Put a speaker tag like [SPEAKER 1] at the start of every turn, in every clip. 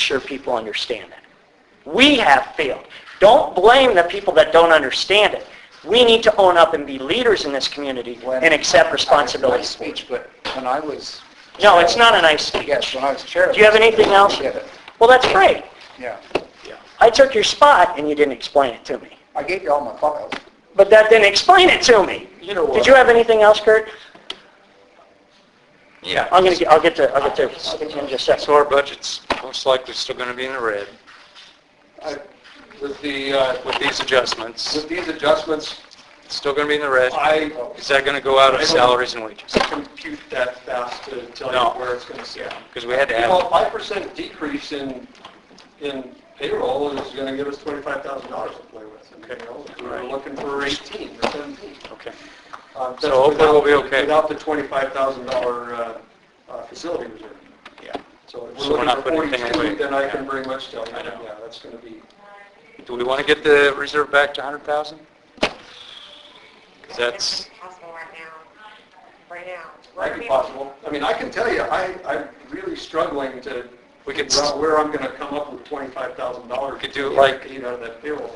[SPEAKER 1] sure people understand that. We have failed. Don't blame the people that don't understand it. We need to own up and be leaders in this community
[SPEAKER 2] When-
[SPEAKER 1] and accept responsibility.
[SPEAKER 2] Nice speech, but when I was...
[SPEAKER 1] No, it's not a nice speech.
[SPEAKER 2] Yes, when I was chair...
[SPEAKER 1] Do you have anything else?
[SPEAKER 2] I get it.
[SPEAKER 1] Well, that's great.
[SPEAKER 2] Yeah.
[SPEAKER 1] I took your spot and you didn't explain it to me.
[SPEAKER 2] I gave you all my files.
[SPEAKER 1] But that didn't explain it to me.
[SPEAKER 3] You know what?
[SPEAKER 1] Did you have anything else, Kurt?
[SPEAKER 3] Yeah.
[SPEAKER 1] I'm gonna, get- I'll get to, I'll get to, in just a
[SPEAKER 3] So
[SPEAKER 1] second.
[SPEAKER 3] our budget's most likely still going to be in the red
[SPEAKER 4] I- Uh, With the, uh,
[SPEAKER 3] with these adjustments.
[SPEAKER 4] with these adjustments,
[SPEAKER 3] It's still going to be in the red.
[SPEAKER 4] I
[SPEAKER 3] Is that going to go out of salaries and wages?
[SPEAKER 4] compute that fast to tell
[SPEAKER 3] No.
[SPEAKER 4] you where it's going to sit.
[SPEAKER 3] Because we had to
[SPEAKER 4] Well,
[SPEAKER 3] add,
[SPEAKER 4] 5% decrease in, in payroll is going to give us $25,000 to play with. you know? We We're
[SPEAKER 3] Right.
[SPEAKER 4] looking for 18 or 17.
[SPEAKER 3] okay.
[SPEAKER 4] Uh, that's
[SPEAKER 3] So hopefully we'll be
[SPEAKER 4] without-
[SPEAKER 3] okay.
[SPEAKER 4] Without the $25,000 uh, uh, facility reserve.
[SPEAKER 3] Yeah.
[SPEAKER 4] So if
[SPEAKER 3] So
[SPEAKER 4] we're
[SPEAKER 3] we're not
[SPEAKER 4] looking for
[SPEAKER 3] putting anything
[SPEAKER 4] 42,
[SPEAKER 3] away.
[SPEAKER 4] then I can
[SPEAKER 3] Yeah.
[SPEAKER 4] very much tell you,
[SPEAKER 3] I know.
[SPEAKER 4] yeah, that's going to be,
[SPEAKER 3] Do we want to get the reserve back to 100,000? Because that's,
[SPEAKER 5] Possible right now, right now.
[SPEAKER 4] might be possible. I mean, I can tell you, I, I'm really struggling to
[SPEAKER 3] We could
[SPEAKER 4] figure
[SPEAKER 3] s-
[SPEAKER 4] out where I'm going to come up with $25,000.
[SPEAKER 3] could do it like-
[SPEAKER 4] You know, that payroll.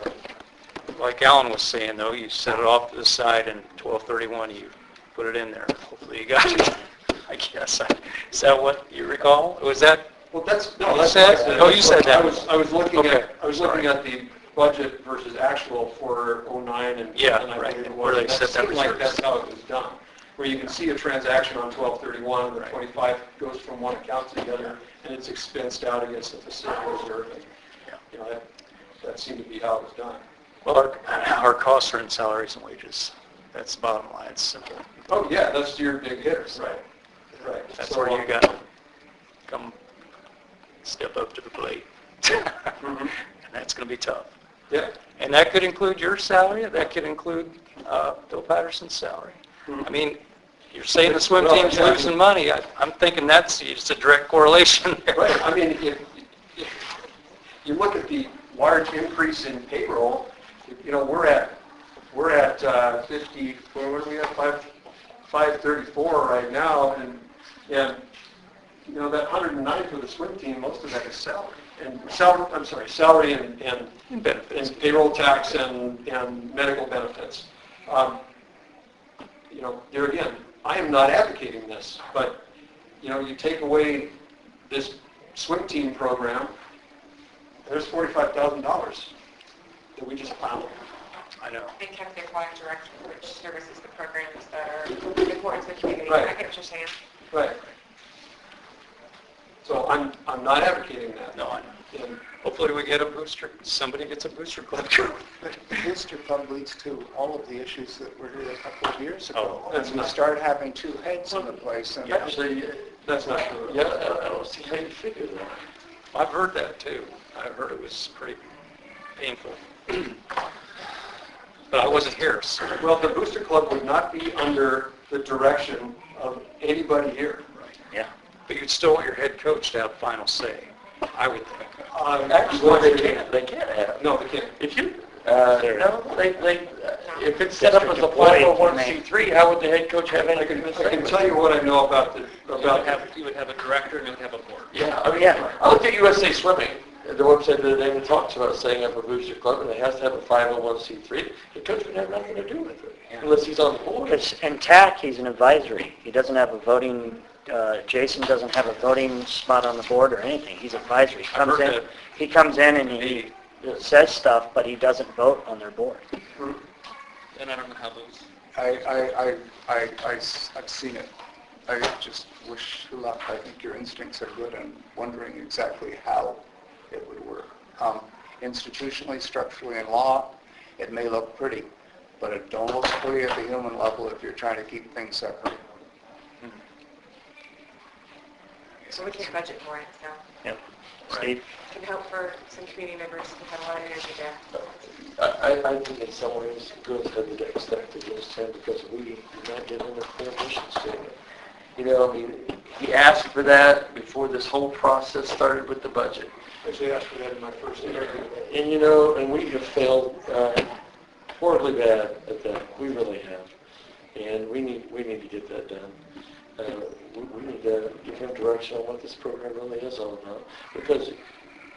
[SPEAKER 3] like Alan was saying though, you set it off to the side and 1231, you put it in there. Hopefully you got it, I guess. Is that what you recall? Was that,
[SPEAKER 4] Well, that's,
[SPEAKER 3] You
[SPEAKER 4] no, that's.
[SPEAKER 3] said-
[SPEAKER 4] that's-
[SPEAKER 3] oh, you said that.
[SPEAKER 4] I was, I was looking
[SPEAKER 3] Okay.
[SPEAKER 4] at, I was looking at the budget versus actual for '09 and.
[SPEAKER 3] Yeah,
[SPEAKER 4] and I
[SPEAKER 3] right,
[SPEAKER 4] believe it
[SPEAKER 3] where
[SPEAKER 4] was.
[SPEAKER 3] they set that
[SPEAKER 4] seemed like
[SPEAKER 3] reserves.
[SPEAKER 4] that's how it was done, where you can see a transaction on 1231, the 25 goes from one account to the other, and it's expensed out against the facility reserve. and, You know, that, that seemed to be how it was done.
[SPEAKER 3] well, our- our costs are in salaries and wages. That's the bottom line, it's simple.
[SPEAKER 4] Oh, yeah, that's your big hitters, right, right.
[SPEAKER 3] That's
[SPEAKER 4] So,
[SPEAKER 3] where you
[SPEAKER 4] um,
[SPEAKER 3] got to come step up to the plate.
[SPEAKER 4] Mm-hmm.
[SPEAKER 3] And that's going to be tough.
[SPEAKER 4] Yeah,
[SPEAKER 3] And that could include your salary, that could include uh, Bill Patterson's salary. I mean, you're saying the swim
[SPEAKER 4] Mm-hmm. Well,
[SPEAKER 3] team's
[SPEAKER 4] yeah, I mean-
[SPEAKER 3] losing money, I- I'm thinking that's, it's a direct correlation there.
[SPEAKER 4] right, I mean, if, if you look at the large increase in payroll, you know, we're at, we're at uh, 50, where what are we at, 5, 534 right now, and, and, you know, that 109 for the swim team, most of that is salary, and salary, I'm sorry, salary and, and
[SPEAKER 3] And benefits.
[SPEAKER 4] and payroll tax and, and medical benefits. Um, You know, there again, I am not advocating this, but, you know, you take away this swim team program, there's $45,000 that we just plowed.
[SPEAKER 3] I know.
[SPEAKER 5] They kept their water direct, which services the programs that are important to the community. I get what you're saying.
[SPEAKER 4] Right. So I'm, I'm not advocating that.
[SPEAKER 3] No, I know.
[SPEAKER 4] And
[SPEAKER 3] Hopefully we get a booster, somebody gets a booster club.
[SPEAKER 2] Booster Club leads to all of the issues that were here a couple of years ago.
[SPEAKER 3] Oh,
[SPEAKER 2] And we start having two heads in the place, and
[SPEAKER 3] Yeah.
[SPEAKER 4] Actually, that's not true. Yeah, I don't see how you figure that.
[SPEAKER 3] I've heard that too. I heard it was pretty painful. But I wasn't here, so.
[SPEAKER 4] Well, the Booster Club would not be under the direction of anybody here.
[SPEAKER 3] Yeah. But you'd still want your head coach to have final say, I would think.
[SPEAKER 4] Um,
[SPEAKER 1] Well, they can't, they can't have.
[SPEAKER 4] No, they can't.
[SPEAKER 1] If you, uh, no, they, they, if it's set up as a
[SPEAKER 2] District employee, you
[SPEAKER 1] 501c3, how would the head coach have
[SPEAKER 4] I
[SPEAKER 1] anything
[SPEAKER 4] can,
[SPEAKER 1] to
[SPEAKER 4] I
[SPEAKER 1] say?
[SPEAKER 4] can
[SPEAKER 1] with
[SPEAKER 4] tell
[SPEAKER 1] it?
[SPEAKER 4] you what I know about the, about
[SPEAKER 3] you would have a director and you would have a board.
[SPEAKER 1] Yeah, oh, yeah. I looked at USA Swimming, the website the other day, and it talks about setting up a booster club, and it has to have a 501c3. The coach would have nothing to do with it, unless he's on the board.
[SPEAKER 6] Because in TAC, he's an advisory. He doesn't have a voting, uh, Jason doesn't have a voting spot on the board or anything. He's advisory. He comes
[SPEAKER 3] heard
[SPEAKER 6] in,
[SPEAKER 3] that.
[SPEAKER 6] he comes in and he says stuff, but he doesn't vote on their board.
[SPEAKER 3] Then I don't know how those.
[SPEAKER 2] I, I, I, I, I s- I've seen it. I just wish you luck. I think your instincts are good and wondering exactly how it would work. Um, Institutionally, structurally, and law, it may look pretty, but it don't look pretty at the human level if you're trying to keep things separate.
[SPEAKER 5] So we can budget for it, so
[SPEAKER 6] Yep. Steve?
[SPEAKER 5] it can help for some community members who have a lot of energy there.
[SPEAKER 1] I, I- I think in some ways, good that the next step to this time because we did not get enough permission statement. You know, I mean, he asked for that before this whole process started with the budget.
[SPEAKER 4] Actually, asked for that in my first interview.
[SPEAKER 1] And you know, and we have failed uh, horribly bad at that. We really have. And we need, we need to get that done. Uh, we- We need to give him direction on what this program really is all about. Because